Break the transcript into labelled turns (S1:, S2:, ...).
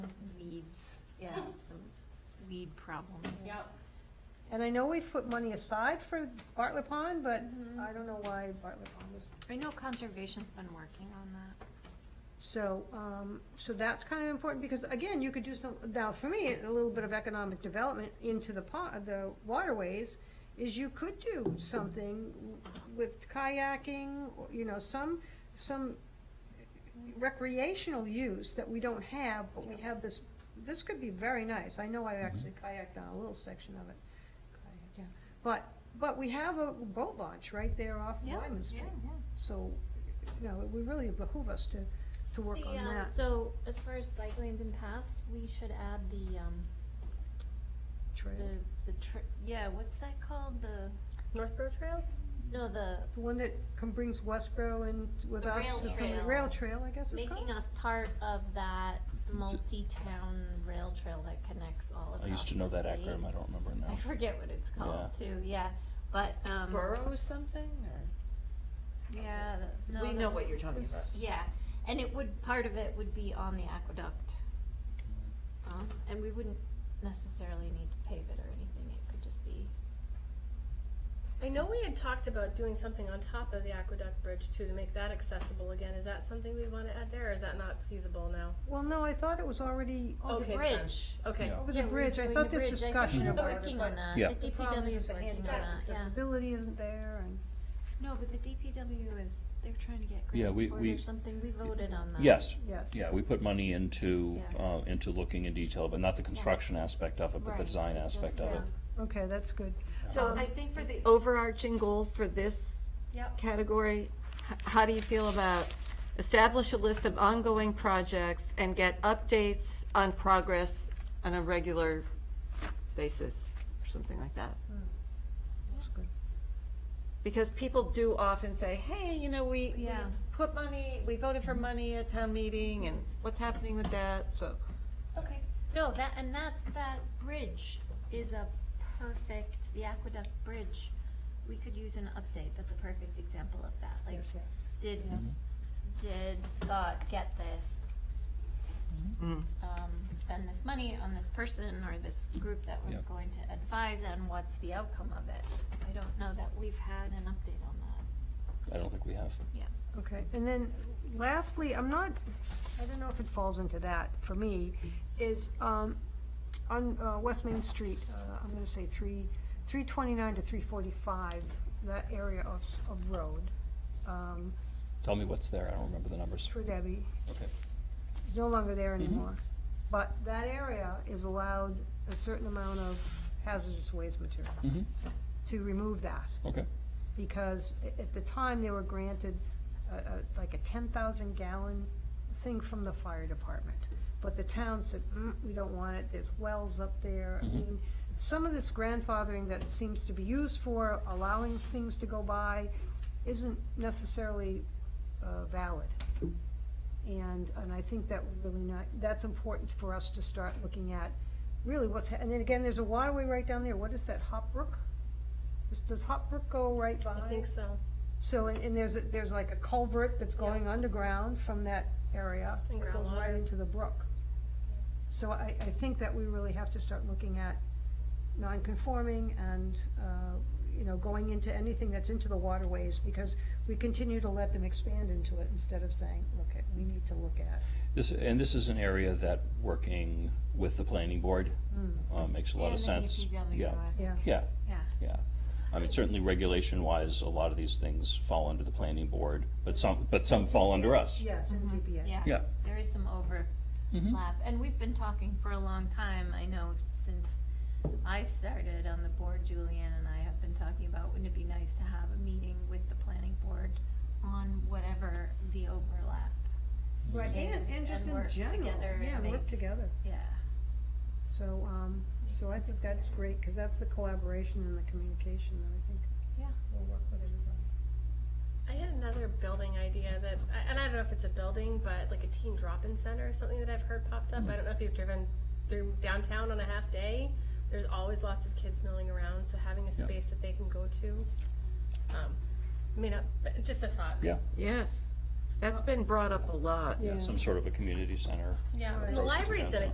S1: weed problems.
S2: Yep.
S3: And I know we've put money aside for Bartlett Pond, but I don't know why Bartlett Pond was.
S1: I know conservation's been working on that.
S3: So, um, so that's kind of important, because again, you could do some, now for me, a little bit of economic development into the pond, the waterways, is you could do something with kayaking, or, you know, some, some recreational use that we don't have, but we have this, this could be very nice. I know I actually kayaked on a little section of it. Kayak, yeah. But, but we have a boat launch right there off
S1: Yeah,
S3: Wyman Street.
S1: yeah, yeah.
S3: So, you know, it would really behoove us to, to work
S4: The,
S3: on
S4: um,
S3: that.
S4: So as far as bike lanes and paths, we should add the, um,
S3: Trail.
S4: the, the tr yeah, what's that called? The,
S2: Northborough Trails?
S4: no, the,
S3: The one that com- brings Westboro and with
S4: The
S3: us
S4: rail
S3: to some,
S4: trail.
S3: rail trail, I guess it's called?
S4: making us part of that multi-town rail trail that connects all across
S5: I used to know
S4: the
S5: that
S4: state.
S5: acronym. I don't remember now.
S4: I forget what it's called
S5: Yeah.
S4: too, yeah, but, um.
S2: Borough something or?
S4: Yeah. the- no,
S2: We
S4: the-
S2: know what you're talking about.
S3: It's-
S4: Yeah, and it would, part of it would be on the aqueduct. Um, and we wouldn't necessarily need to pave it or anything, it could just be
S6: I know we had talked about doing something on top of the aqueduct bridge too to make that accessible again. Is that something we want to add there or is that not feasible now?
S3: Well, no, I thought it was already
S4: Oh, the
S6: Okay, fine.
S4: bridge.
S6: Okay.
S5: Yeah.
S3: over the
S4: Yeah, we were
S3: bridge. I
S4: doing
S3: thought
S4: the
S3: this
S4: bridge. I think
S3: discussion
S4: we're
S3: or whatever,
S4: working
S3: but
S4: on that.
S5: Yeah.
S4: The
S3: the problem
S4: DPW
S3: is
S4: is
S3: the
S4: working on
S3: handicap
S4: that, yeah.
S3: Accessibility isn't there and.
S1: No, but the DPW is, they're trying to get
S5: Yeah,
S1: grants
S5: we-
S1: for it
S5: we-
S1: or something.
S4: We voted on that.
S5: Yes.
S3: Yes.
S5: Yeah, we put money into,
S4: Yeah.
S5: uh, into looking in detail, but not the construction aspect of it, but the
S4: Right,
S5: design
S4: just
S5: aspect of it.
S4: the-
S3: Okay, that's good.
S4: Um,
S2: So I think for the overarching goal for this
S6: Yep.
S2: category, h- how do you feel about establish a list of ongoing projects and get updates on progress on a regular basis, or something like that?
S3: That's good.
S2: Because people do often say, hey, you know, we, we
S1: Yeah.
S2: put money, we voted for money at town meeting, and what's happening with that, so.
S4: Okay.
S1: No, that, and that's, that bridge is a perfect, the aqueduct bridge, we could use an update, that's a perfect example of that, like,
S3: Yes, yes.
S1: did,
S5: Mm-hmm.
S1: did Scott get this?
S2: mm.
S1: um, spend this money on this person or this group that was
S5: Yeah.
S1: going to advise and what's the outcome of it. I don't know that we've had an update on that.
S5: Mm-hmm. I don't think we have.
S1: Yeah.
S3: Okay, and then lastly, I'm not, I don't know if it falls into that for me, is, um, on, uh, West Main Street, uh, I'm gonna say three, three twenty-nine to three forty-five, that area of, s- of road, um,
S5: Tell me what's there. I don't remember the numbers.
S3: for Debbie,
S5: Okay.
S3: is no longer there anymore. But that area is allowed a certain amount of hazardous waste material,
S5: hmm
S3: to remove that.
S5: okay.
S3: because a- at the time, they were granted a- a- like a 10,000 gallon thing from the fire department. But the town said, mm, we don't want it, there's wells up there. I
S5: Mhm.
S3: mean, some of this grandfathering that seems to be used for allowing things to go by isn't necessarily uh, valid. And, and I think that would really not, that's important for us to start looking at, really what's, ha- and then again, there's a waterway right down there, what is that, Hop Brook? Does- Does Hop Brook go right by?
S6: I think so.
S3: So, and, and there's, a- there's like a culvert that's going underground from that area.
S6: And
S3: that Goes right
S6: groundwater.
S3: into the brook. So I, I think that we really have to start looking at non-conforming and, uh, you know, going into anything that's into the waterways because we continue to let them expand into it instead of saying, look, at- we need to look at.
S5: This, and this is an area that working with the planning board,
S3: Mm.
S5: uh, makes a lot of sense.
S3: E
S5: Yeah,
S3: Yeah.
S5: yeah,
S1: Yeah.
S5: yeah. I mean, certainly regulation-wise, a lot of these things fall under the planning board, but some, but some fall under us.
S3: Yes, in ZBA.
S1: Mm-hmm. Yeah.
S5: Yeah.
S1: There is some overlap. And we've been talking for a long time. I know since I started on the board, Julianne and I have been talking about, wouldn't it be nice to have a meeting with the planning board on whatever the overlap?
S3: Right,
S5: Mm-hmm.
S3: and,
S1: Yes,
S3: and just
S1: and
S3: in
S1: work
S3: general,
S1: together and
S3: yeah, work
S1: make-
S3: together.
S1: Yeah.
S3: So, um, so I think that's great, because that's the collaboration and the communication that I think
S1: Yeah.
S3: will work with everybody.
S6: I had another building idea that, I- and I don't know if it's a building, but like a teen drop-in center or something that I've heard popped
S5: Hmm.
S6: up. I don't know if you've driven through downtown on a half day. There's always lots of kids milling around, so having a
S5: Yeah.
S6: space that they can go to. Um, I mean, uh, but just a thought.
S5: Yeah,
S2: Yes, that's been brought up a lot.
S5: yeah, some sort of a community center.
S6: Yeah, and the
S5: Right.
S6: library's done a